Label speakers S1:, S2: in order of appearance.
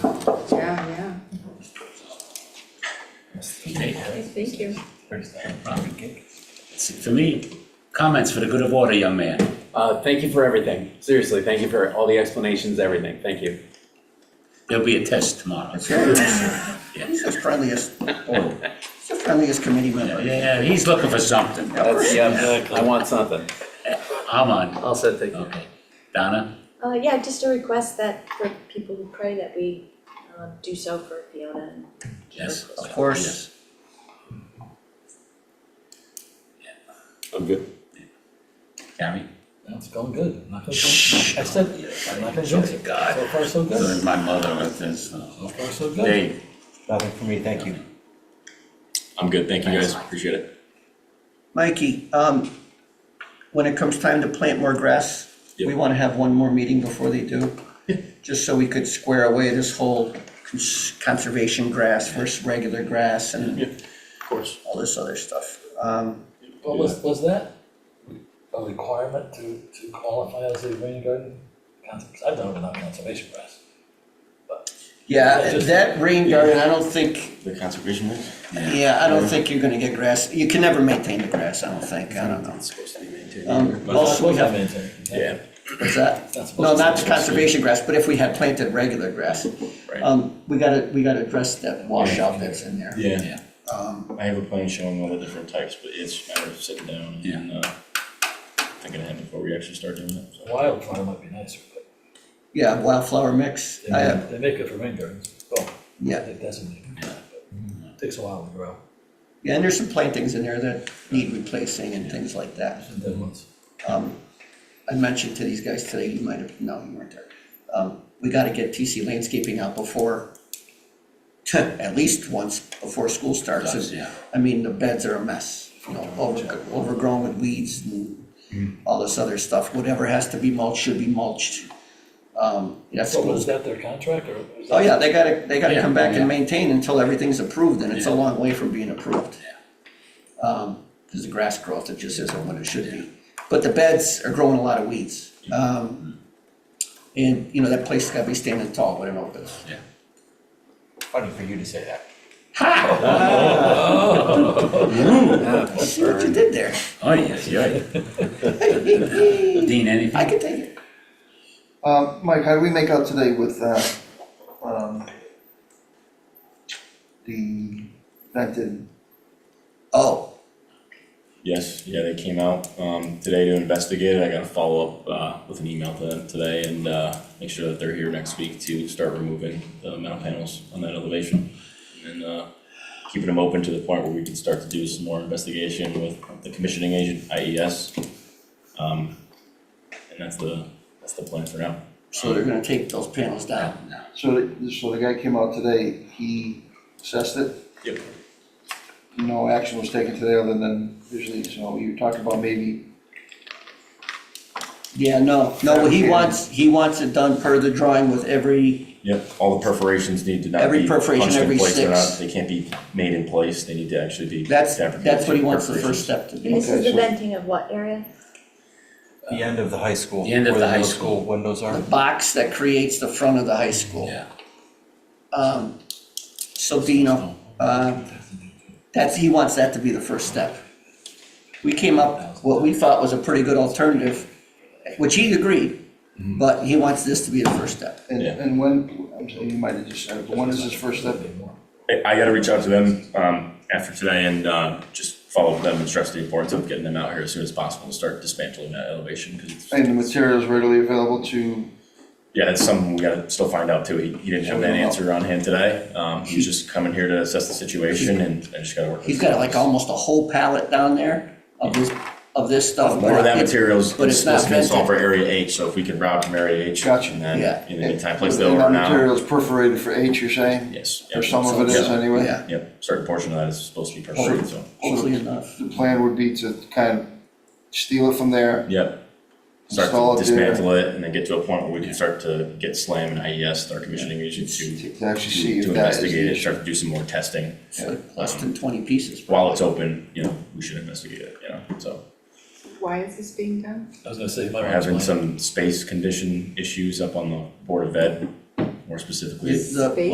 S1: Thank you.
S2: First, uh, Robert Kick. That's it for me. Comments for the good of order, young man.
S3: Uh, thank you for everything. Seriously, thank you for all the explanations, everything. Thank you.
S2: There'll be a test tomorrow.
S4: He's as friendly as, oh, he's as friendly as committee member.
S2: Yeah, he's looking for something.
S3: That's, yeah, I want something.
S2: I'm on.
S3: I'll say thank
S2: Okay. Donna?
S1: Uh, yeah, just a request that for people who pray that we, um, do so for Fiona and
S2: Yes?
S4: Of course.
S3: I'm good.
S2: Yes. Gary?
S5: It's going good. I'm not gonna complain. I said, I'm not gonna jinx it.
S2: God.
S5: So far, so
S2: So
S5: good.
S2: is my mother with this. uh,
S5: So far, so good.
S2: Dave?
S6: Nothing for me, thank you.
S3: I'm good. Thank you
S2: Thanks,
S3: guys.
S2: Mike.
S3: Appreciate it.
S4: Mikey, um, when it comes time to plant more grass, we wanna have one more meeting before they do. Just so we could square away this whole cons- conservation grass versus regular grass and
S3: Of course.
S4: all this other stuff. Um,
S5: What was, was that a requirement to, to qualify as a rain garden? Cons- I've done it without conservation grass.
S4: yeah, that rain garden, I don't think,
S6: The conservation is?
S4: yeah, I don't think you're gonna get grass, you can never maintain the grass, I don't think, I don't know.
S3: It's supposed to be maintained.
S4: Um,
S5: But it's not
S4: also, we
S5: supposed to
S4: have,
S5: maintain.
S3: Yeah.
S4: what's that?
S5: It's not supposed to.
S4: No, not conservation grass, but if we had planted regular grass.
S3: Right.
S4: Um, we gotta, we gotta address that washout that's in there.
S6: Yeah,
S4: Um,
S6: I have a plan showing all the different types, but it's a matter of sitting down and,
S2: Yeah.
S6: uh, thinking ahead before we actually start doing it, so.
S5: Wildflower might be nicer, but
S4: yeah, wildflower mix, I, uh,
S5: they, they make it for rain gardens. Well,
S4: yeah,
S5: it doesn't make it, but it takes a while to grow.
S4: yeah, and there's some plantings in there that need replacing and things like that.
S5: Some dead ones.
S4: Um, I mentioned to these guys today, you might have, no, you weren't there. Um, we gotta get TC landscaping out before, at least once before school starts.
S2: Does,
S4: and-
S2: yeah.
S4: I mean, the beds are a mess, you know, over- overgrown with weeds and all this other stuff. Whatever has to be mulched should be mulched. Um, that's
S5: What was
S4: schools.
S5: that, their contract or was that?
S4: Oh, yeah, they gotta, they gotta
S2: Yeah,
S4: come back
S2: yeah.
S4: and maintain until everything's approved, and it's a
S2: Yeah.
S4: long way from being approved. Um, cause the grass growth, it just isn't what it should be. But the beds are growing a lot of weeds. Um, and, you know, that place gotta be standing tall when it opens.
S6: Funny for you to say that.
S4: See what you did there?
S2: Oh, yes, yeah. Dean,
S4: I
S2: anything?
S4: can take it.
S7: Um, Mike, how do we make out today with, uh, um, the vented,
S4: Oh,
S6: Yes, yeah, they came out, um, today to investigate it, I gotta follow up, uh, with an email to them today and, uh, make sure that they're here next week to start removing the metal panels on that elevation. And, uh, keeping them open to the point where we can start to do some more investigation with the commissioning agent, IES. Um, and that's the, that's the plan for now.
S4: So they're gonna take those panels down.
S2: No.
S7: so, the- so the guy came out today, he assessed it?
S6: Yep.
S7: No action was taken today other than usually, so you talked about maybe,
S4: Yeah, no, no, he wants, he wants it done per the drawing with every,
S6: Yep, all the perforations need to not
S4: Every
S6: be
S4: perforation,
S6: punched
S4: every
S6: in place, they're
S4: six.
S6: not, they can't be made in place, they need to actually be.
S4: that's,
S6: fabricated
S4: that's what he
S6: with
S4: wants the
S6: perforations.
S4: first step to
S1: And
S4: be.
S1: this is the
S7: so-
S1: venting of what area?
S6: The end of the high school.
S2: The end of
S6: where
S2: the high
S6: middle
S2: school.
S6: Windows
S4: The box that creates the front of the high school.
S2: Yeah.
S4: Um, so Dino, uh, that's, he wants that to be the first step. We came up, what we thought was a pretty good alternative, which he agreed, but he wants this to be the first step.
S7: and,
S6: Yeah.
S7: and when, I'm sorry, you might have just said it, but when is his first step?
S6: I, I gotta reach out to them, um, after today and, uh, just follow up with them and stress the importance of getting them out here as soon as possible to start dismantling that elevation, cause it's,
S7: And the material is readily available to,
S6: yeah, that's something we gotta still find out too. He, he didn't have that answer on hand today, um, he's just coming here to assess the situation and I just gotta work. with
S4: He's
S6: him.
S4: got like almost a whole pallet down there of this, of this stuff.
S6: More of that
S4: It's-
S6: material's
S4: but it's not
S6: supposed to be
S4: vented.
S6: sold for area H, so if we can route from area H
S7: Gotcha.
S6: and
S4: Yeah.
S6: then in the meantime, place the
S7: and
S6: order
S7: that
S6: now.
S7: material is perforated for H, you're saying?
S6: Yes.
S7: Or
S6: yep.
S7: some of it is
S6: Yeah.
S7: anyway?
S4: Yeah,
S6: Yep, certain portion of that is supposed to be perforated, so,
S4: hopefully enough.
S7: The plan would be to kind of steal it from there,
S6: yep. Start
S7: Install it
S6: to
S7: there.
S6: dismantle it and then get to a point where we can start to get SLAM and IES, our commissioning agent, to,
S7: to actually see
S6: to
S7: if that is the
S6: investigate it,
S7: issue.
S6: start to do some more testing.
S4: It's like less than twenty pieces.
S6: While it's open, you know, we should investigate it, you know, so.
S8: why is this being done?
S5: I was gonna say, you might
S6: We're
S5: want to
S6: having
S5: explain.
S6: some space condition issues up on the Board of Ed, more specifically.
S4: Is the-
S8: Space